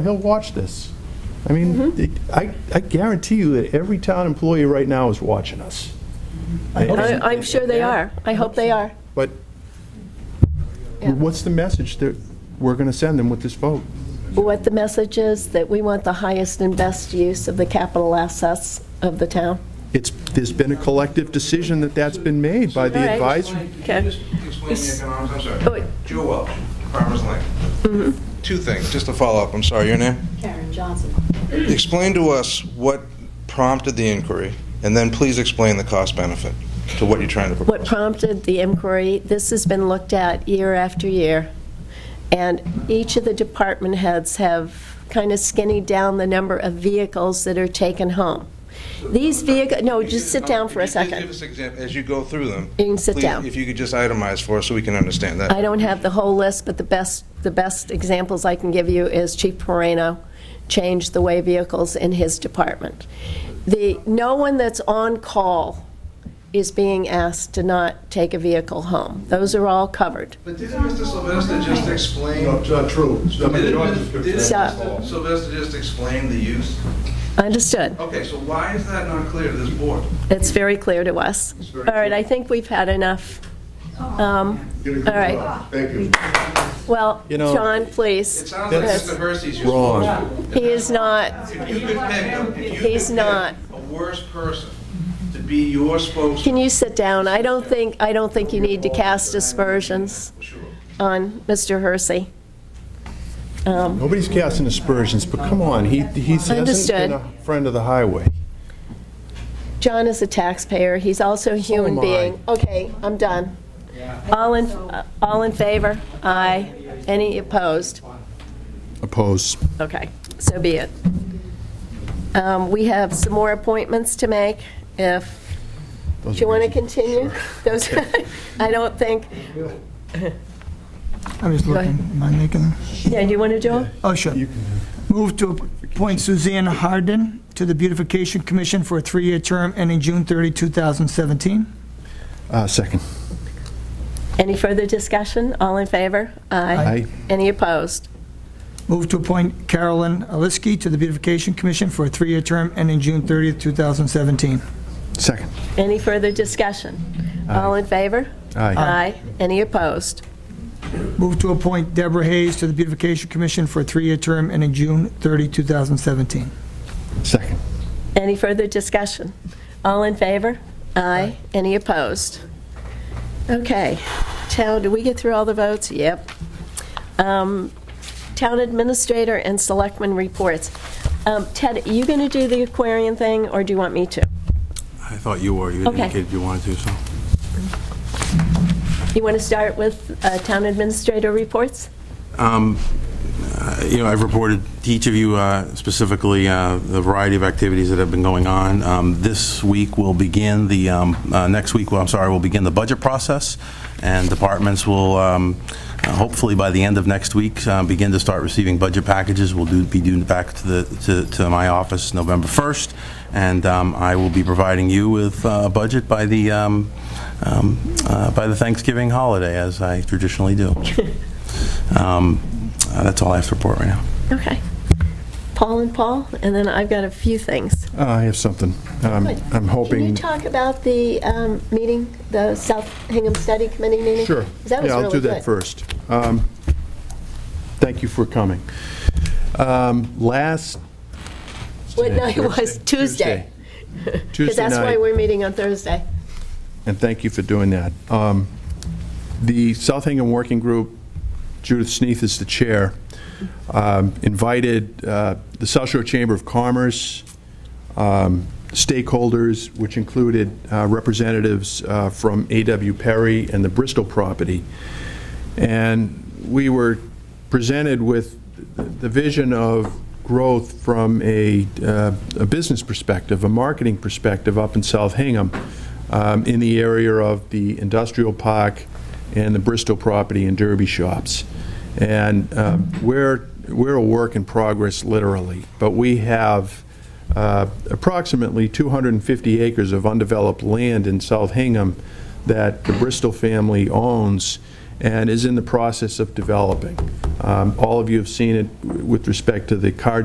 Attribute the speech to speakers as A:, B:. A: he'll watch this. I
B: Mm-hmm.
A: mean, it- I, I guarantee you that every town employee right now is watching us.
B: I- I'm sure they are. I hope they are.
A: But what's the message that we're going to send them with this vote?
B: What the message is, that we want the highest and best use of the capital assets of the town.
A: It's, there's been a collective decision that that's been made by the
B: All right.
A: advisory.
B: Okay.
C: Can you just explain the economics, I'm
B: Oh, wait.
C: sorry. Joe Welch, Farmers Lane.
B: Mm-hmm.
C: Two things, just to follow up, I'm sorry, your name?
D: Karen Johnson.
C: Explain to us what prompted the inquiry, and then please explain the cost benefit to what you're trying to
B: What
C: propose.
B: prompted the inquiry, this has been looked at year after year, and each of the department heads have kind of skinnied down the number of vehicles that are taken home. These vehicle, no, just sit down for a
C: Could you please
B: second.
C: give us exam- As you go through them.
B: You can sit
C: please,
B: down.
C: If you could just itemize for us so we can understand that.
B: I don't have the whole list, but the best, the best examples I can give you is Chief Moreno changed the way vehicles in his department. The, no one that's on call is being asked to not take a vehicle home. Those are all covered.
C: But didn't Mr. Sylvester just explain?
A: It's not true.
B: Stop.
C: Sylvester just explain the use?
B: Understood.
C: Okay, so why is that not clear to this board?
B: It's very clear to us. All right, I think we've had enough. Um, All right.
A: Thank you.
B: Well,
A: You know-
B: John,
C: It
B: please.
C: sounds like
A: That's
C: Mr. Hersey's just.
A: Wrong.
B: He is not,
C: If you could pick, if you could
B: He's
C: pick
B: not.
C: a worse person to be your spokesman.
B: can you sit down? I don't think, I don't think you need to cast aspersions
C: Sure.
B: on Mr. Hersey.
A: Nobody's casting aspersions, but come on, he, he hasn't
B: Understood.
A: been a friend of the highway.
B: John is a taxpayer, he's also a human
A: am I.
B: being. Okay, I'm done. All in, uh, all in favor? Aye. Any opposed?
A: Opposed.
B: Okay, so be it. Um, We have some more appointments to make, if, do you want to continue? Those, I don't think,
E: I was looking, am I making, them?
B: yeah, do you want to do it?
E: oh, sure. Move to appoint Suzanne Harden to the Beautification Commission for a three-year term ending June 30, 2017.
A: Uh, second.
B: Any further discussion? All in favor?
A: Aye.
B: Any opposed?
E: Move to appoint Carolyn Aliski to the Beautification Commission for a three-year term ending June 30, 2017.
A: Second.
B: Any further discussion? All in favor?
A: Aye.
B: Aye. Any opposed?
E: Move to appoint Deborah Hayes to the Beautification Commission for a three-year term ending June 30, 2017.
A: Second.
B: Any further discussion? All in favor? Aye. Any opposed? Okay. Town, did we get through all the votes? Yep. Um, Town Administrator and Selectman Reports. Um, Ted, are you going to do the Aquarian thing, or do you want me to?
F: I thought you were, you
B: Okay.
F: indicated you wanted to, so.
B: You want to start with uh, Town Administrator Reports?
F: Um, uh, You know, I've reported to each of you uh, specifically uh, the variety of activities that have been going on. Um, This week will begin the, um, uh, next week, well, I'm sorry, will begin the budget process, and departments will, um, uh, hopefully by the end of next week, uh, begin to start receiving budget packages. We'll do, be due back to the, to- to my office November 1st, and um, I will be providing you with uh, a budget by the, um, um, uh, by the Thanksgiving holiday, as I traditionally do. Um, uh, That's all I have to report right now.
B: Okay. Paul and Paul, and then I've got a few things.
A: Uh, I have something. Um,
B: Good.
A: I'm
B: Can you
A: hoping.
B: talk about the um, meeting, the South Hingham Study Committee meeting?
A: Sure.
B: 'Cause That was
A: Yeah, I'll do
B: really
A: that
B: good.
A: first. Um, Thank you for coming. Um, Last.
B: What night was? Tuesday.
A: Tuesday. Tuesday
B: Because that's why
A: night.
B: we're meeting on Thursday.
A: and thank you for doing that. Um, The South Hingham Working Group, Judith Sneath is the chair, um, invited uh, the South Shore Chamber of Commerce, um, stakeholders, which included uh, representatives uh, from A.W. Perry and the Bristol property. And we were presented with the vision of growth from a, uh, a business perspective, a marketing perspective up in South Hingham, um, in the area of the industrial park and the Bristol property and Derby shops. And um, we're, we're a work in progress, literally, but we have uh, approximately 250 acres of undeveloped land in South Hingham that the Bristol family owns, and is in the process of developing. Um, All of you have seen it with respect to the car